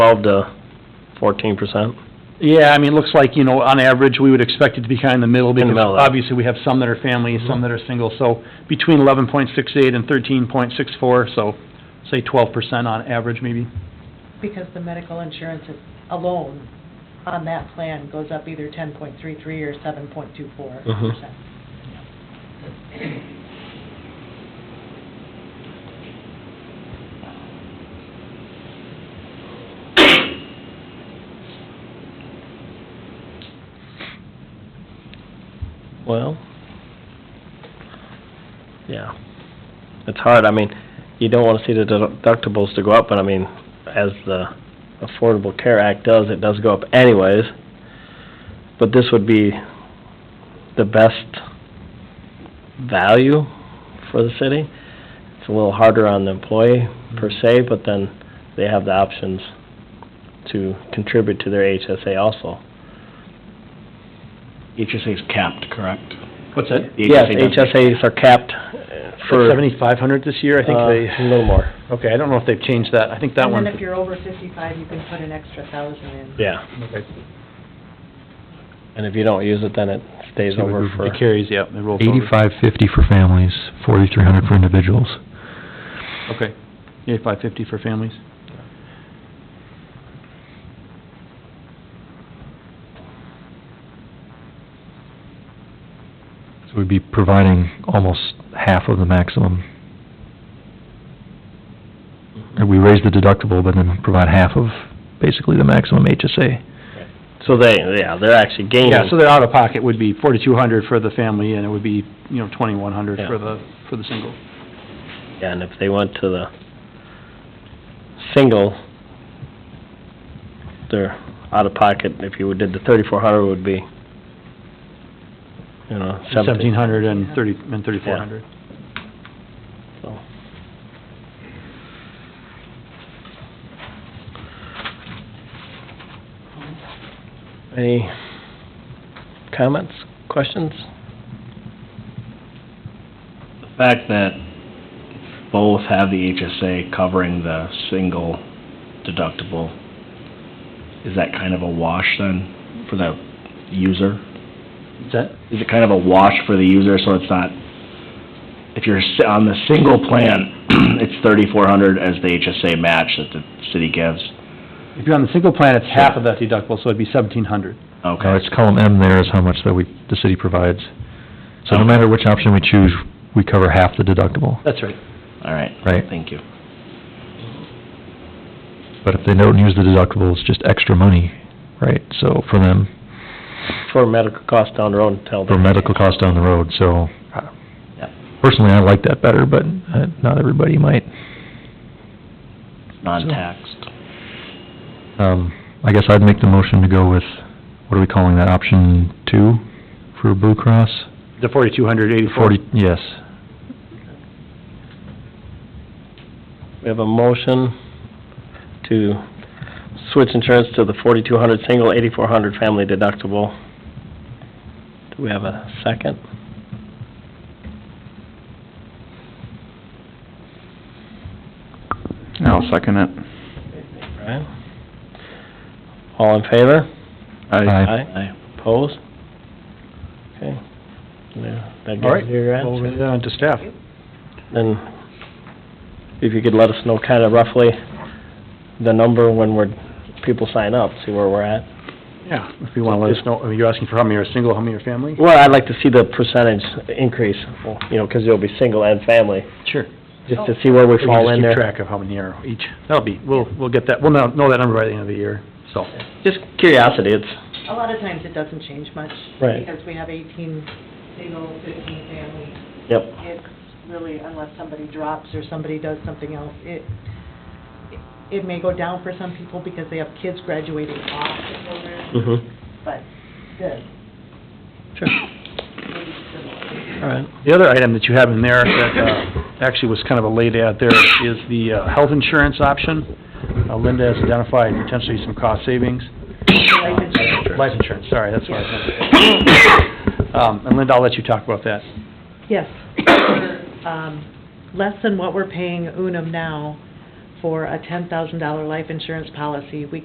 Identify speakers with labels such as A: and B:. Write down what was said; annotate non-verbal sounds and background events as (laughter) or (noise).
A: twelve to fourteen percent?
B: Yeah, I mean, it looks like, you know, on average, we would expect it to be kind of in the middle,
A: the
B: because
A: middle, yeah.
B: obviously, we have some that are families, some that are single, so between eleven point six eight and thirteen point six four, so say twelve percent on average, maybe.
C: Because the medical insurance is- alone on that plan goes up either 10.33 or 7.24 percent.
A: Well, yeah, it's hard, I mean, you don't wanna see the deductibles to go up, but I mean, as the Affordable Care Act does, it does go up anyways. But this would be the best value for the city. It's a little harder on the employee per se, but then they have the options to contribute to their HSA also.
D: HSA is capped, correct?
B: What's that?
D: The
A: Yes,
D: HSA doesn't-
A: HSAs are capped uh, for...
B: Seventy-five hundred this year, I think
A: Uh,
B: they.
A: a little more.
B: Okay, I don't know if they've changed that, I think that
C: And
B: one.
C: then if you're over 55, you can put an extra thousand in.
A: Yeah,
B: Okay.
A: and if you don't use it, then it stays
E: So it
A: over
E: would be
A: for,
B: It carries, yeah, it rolls over.
E: Eighty-five fifty for families, forty-three hundred for individuals.
B: Okay, eighty-five fifty for families.
E: So we'd be providing almost half of the maximum. Or we raise the deductible, but then provide half of basically the maximum HSA.
A: so they, yeah, they're actually gaining.
B: Yeah, so their out-of-pocket would be forty-two hundred for the family, and it would be, you know, twenty-one hundred
A: Yeah.
B: for the, for the single.
A: Yeah, And if they went to the single, they're out of pocket, if you did the thirty-four hundred, would be, you know,
B: Seventeen
A: seventeen.
B: hundred and thirty, and thirty-four hundred.
A: so. Any comments, questions?
D: The fact that both have the HSA covering the single deductible, is that kind of a wash then for the user?
B: Is that?
D: Is it kind of a wash for the user, so it's not, if you're s- on the single plan, (clears throat) it's thirty-four hundred as the HSA match that the city gives?
B: If you're on the single plan, it's half of that deductible, so it'd be seventeen hundred.
E: Now,
D: Okay,
E: it's column M there is how much that we, the city provides. So no
D: Okay.
E: matter which option we choose, we cover half the deductible.
B: That's right.
D: all right.
E: Right.
D: Thank you.
E: But if they don't use the deductible, it's just extra money, right? So for them,
A: For medical costs down the road, tell them.
E: for medical costs down the road, so. uh,
D: Yep.
E: Personally, I like that better, but uh, not everybody might.
D: Non-taxed.
E: Um, I guess I'd make the motion to go with, what are we calling that, option two for Blue Cross?
B: The forty-two hundred eighty-four.
E: Forty, yes.
A: We have a motion to switch insurance to the forty-two hundred single, eighty-four hundred family deductible. Do we have a second?
F: I'll second it.
A: Brian? All in favor?
E: Aye.
A: Aye. Opposed? Okay. Yeah, That
B: All right,
A: gives you your
B: we'll
A: answer.
B: run it on to staff.
A: Then, if you could let us know kind of roughly the number when we're, people sign up, see where we're at.
B: Yeah, if you wanna let us know, I mean, you're asking for how many are single, how many are family?
A: Well, I'd like to see the percentage increase, you know, because it'll be single and family.
B: Sure.
A: just to see where we
B: We can
A: fall
B: Oh. just
A: in
B: keep
A: there.
B: track of how many are each. That'll be, we'll, we'll get that, we'll know, know that number by the end of the year, so.
A: Just curiosity, it's,
C: A lot of times it doesn't change much.
A: Right.
C: Because we have 18 single, 15 family.
A: yep,
C: It's really, unless somebody drops or somebody does something else, it, it may go down for some people because they have kids graduating off the program,
A: mhm,
C: but the,
A: sure,
C: maybe similar.
A: all right.
B: The other item that you have in there that uh, actually was kind of a late ad there is the uh, health insurance option. Uh, Linda has identified potentially some cost savings.
C: Life insurance.
B: Life insurance, sorry, that's what I was
A: mm-hmm. (coughs)
B: meant to say. Um, And Linda, I'll let you talk about that.
C: Yes. Um, Less than what we're paying Unum now for a $10,000 life insurance policy, we